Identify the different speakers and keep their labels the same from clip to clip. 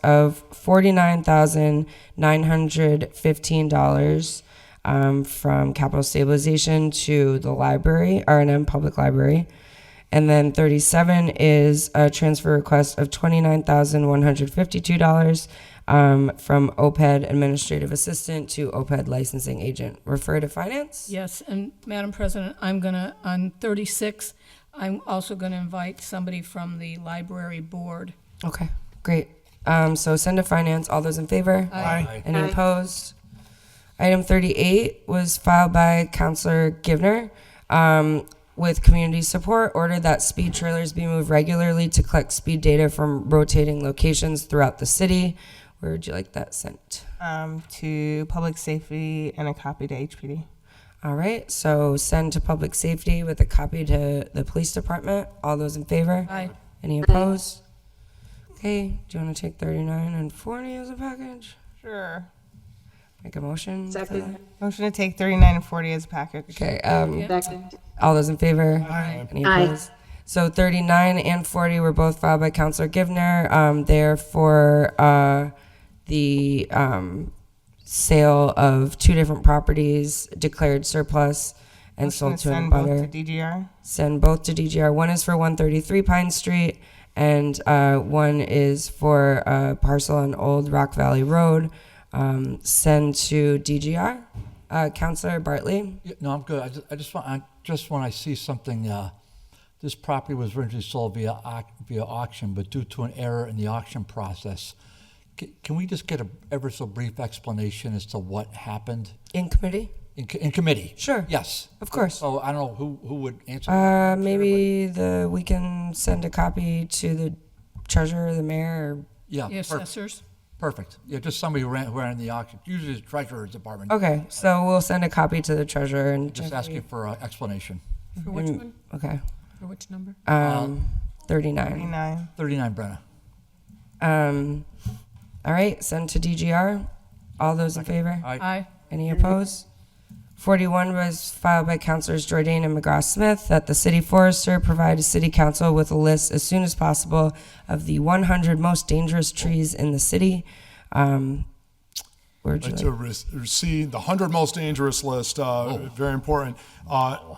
Speaker 1: of $49,915 um, from capital stabilization to the library, R&M Public Library. And then 37 is a transfer request of $29,152 um, from OPED Administrative Assistant to OPED Licensing Agent. Refer to Finance?
Speaker 2: Yes, and Madam President, I'm gonna, on 36, I'm also gonna invite somebody from the library board.
Speaker 1: Okay, great. Um, so send to finance. All those in favor? Aye. Any opposed? Item thirty-eight was filed by Counselor Givner. Um, with community support, order that speed trailers be moved regularly to collect speed data from rotating locations throughout the city. Where would you like that sent?
Speaker 3: um, to public safety and a copy to HPD.
Speaker 1: All right, so send to public safety with a copy to the police department. All those in favor?
Speaker 2: Aye.
Speaker 1: Any opposed? Okay, do you want to take thirty-nine and forty as a package?
Speaker 3: Sure.
Speaker 1: Make a motion? for
Speaker 4: Second.
Speaker 1: that?
Speaker 3: Motion to take 39 and 40 as a package.
Speaker 1: Okay, um,
Speaker 4: Second.
Speaker 1: all those in favor? Any
Speaker 4: Aye.
Speaker 1: opposed? So thirty-nine and forty were both filed by Counselor Givner. Um, they're for, uh, the, um, sale of two different properties declared surplus and
Speaker 3: Motion
Speaker 1: sold
Speaker 3: to
Speaker 1: to an
Speaker 3: send both to
Speaker 1: abutter.
Speaker 3: DGR.
Speaker 1: Send both to DGR. One is for one thirty-three Pine Street and, uh, one is for a parcel on Old Rock Valley Road. Um, send to DGR. Uh, Counselor Bartley?
Speaker 5: Yeah, No, I'm good. I just, I just want, I just when I see something, uh, this property was originally sold via, au- via auction, but due to an error in the auction process, c- can we just get a ever so brief explanation as to what happened
Speaker 1: In committee?
Speaker 5: in, co- in committee?
Speaker 1: Sure.
Speaker 5: Yes.
Speaker 1: Of course.
Speaker 5: So I don't know who, who would answer.
Speaker 1: Uh, maybe the, we can send a copy to the treasurer, the mayor.
Speaker 5: Yeah,
Speaker 2: The
Speaker 5: per-
Speaker 2: assessors?
Speaker 5: perfect. Yeah, just somebody who ran, who ran the auction, usually the treasurer's department.
Speaker 1: or- Okay, so we'll send a copy to the treasurer and.
Speaker 5: Just asking for an explanation.
Speaker 2: For which one?
Speaker 1: Okay,
Speaker 2: For which number?
Speaker 1: um, thirty-nine.
Speaker 3: 39.
Speaker 5: Thirty-nine Brenna.
Speaker 1: Um, all right, send to DGR. All those in favor?
Speaker 5: Aye.
Speaker 2: Aye. Uh,
Speaker 1: Any opposed? Forty-one was filed by Councilors Jordan and McGrath Smith that the city forester provide a city council with a list as soon as possible of the one hundred most dangerous trees in the city. Um, where'd you
Speaker 6: I'd
Speaker 1: like?
Speaker 6: like to re- receive the 100 most dangerous list, uh, very important. Uh,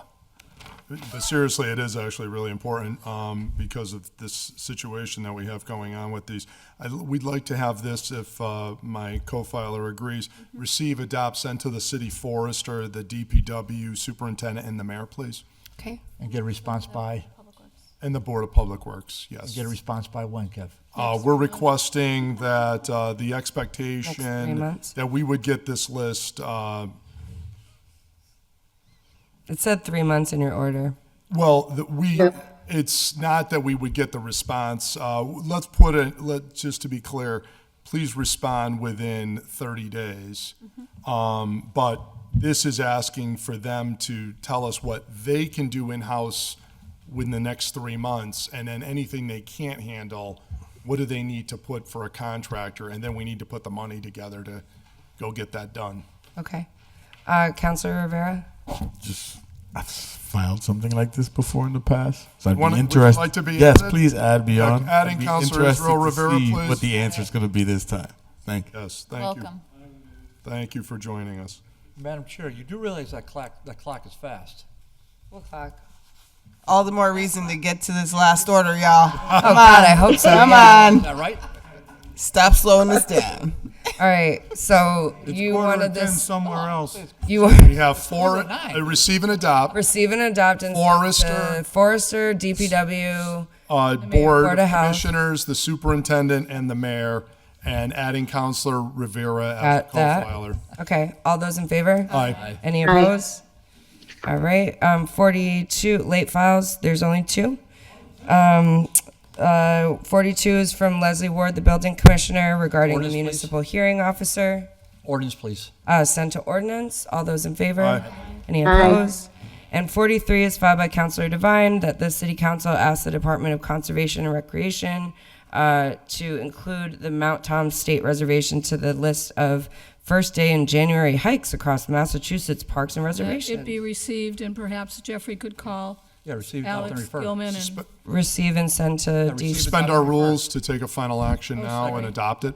Speaker 6: But seriously, it is actually really important um, because of this situation that we have going on with these. I- We'd like to have this, if uh, my co-filer agrees, receive, adopt, send to the city forester, the DPW superintendent, and the mayor, please,
Speaker 1: Okay.
Speaker 5: And get a response by,
Speaker 6: and the Board of Public Works, yes.
Speaker 5: get a response by when, Kev?
Speaker 6: Uh, We're requesting that uh, the
Speaker 1: Next three
Speaker 6: expectation
Speaker 1: months.
Speaker 6: that we would get this list uh,
Speaker 1: It said three months in your order.
Speaker 6: Well, the, we, it's not that we would get the response. Uh, let's put it, let, just to be clear, please respond within thirty days. Um, but this is asking for them to tell us what they can do in-house within the next three months, and then anything they can't handle, what do they need to put for a contractor? And then we need to put the money together to go get that done.
Speaker 1: Okay. Uh, Counselor Rivera?
Speaker 7: just I've filed something like this before in the past, so I'd
Speaker 6: Wanna-
Speaker 7: be
Speaker 6: would you
Speaker 7: interested.
Speaker 6: like to be
Speaker 7: yes,
Speaker 6: added?
Speaker 7: please add beyond.
Speaker 6: adding
Speaker 7: I'd be
Speaker 6: Counselor
Speaker 7: interested
Speaker 6: Israel
Speaker 7: to
Speaker 6: Rivera,
Speaker 7: see
Speaker 6: please.
Speaker 7: What the answer is going to be this time? Thank you.
Speaker 6: Yes, thank you. Thank you for joining us.
Speaker 5: Madam Chair, you do realize that clock, that clock is fast.
Speaker 1: What clock?
Speaker 3: All the more reason to get to this last order, y'all. Come
Speaker 1: Oh,
Speaker 3: on.
Speaker 1: God, I hope so.
Speaker 3: Come
Speaker 5: Is
Speaker 3: on.
Speaker 5: that right?
Speaker 3: Stop slowing us down.
Speaker 1: All right, so you
Speaker 8: Order
Speaker 1: wanted
Speaker 8: it then
Speaker 1: this,
Speaker 8: somewhere else.
Speaker 1: you
Speaker 6: Oh. We have four,
Speaker 5: nine.
Speaker 6: uh, receive and adopt,
Speaker 1: receive and adopt and.
Speaker 6: Forrester.
Speaker 1: the Forrester, DPW,
Speaker 6: uh, board
Speaker 1: Board of Health.
Speaker 6: commissioners, the superintendent, and the mayor, and adding Counselor Rivera as a
Speaker 1: got that.
Speaker 6: co-filer.
Speaker 1: Okay, all those in favor?
Speaker 6: Aye.
Speaker 1: Any opposed? All right, um, forty-two, late files, there's only two. Um, uh, forty-two is from Leslie Ward, the building commissioner regarding the
Speaker 5: Orders, please.
Speaker 1: municipal hearing officer.
Speaker 5: Ordinance, please.
Speaker 1: Uh, sent to ordinance. All those in favor?
Speaker 6: Aye.
Speaker 1: Any opposed? And 43 is filed by Councilor Devine that the City Council ask the Department of Conservation and Recreation uh, to include the Mount Tom State Reservation to the list of first day in January hikes across Massachusetts parks and
Speaker 2: That It
Speaker 1: reservations.
Speaker 2: be received, and perhaps Jeffrey could call
Speaker 5: Yeah, receive, adopt, and
Speaker 2: Alex
Speaker 5: refer.
Speaker 2: Gilman and.
Speaker 1: Receive and send to
Speaker 5: receive
Speaker 1: DG.
Speaker 5: and
Speaker 8: Oh,
Speaker 6: Suspend our rules to take a final action now and
Speaker 5: second.
Speaker 6: adopt it.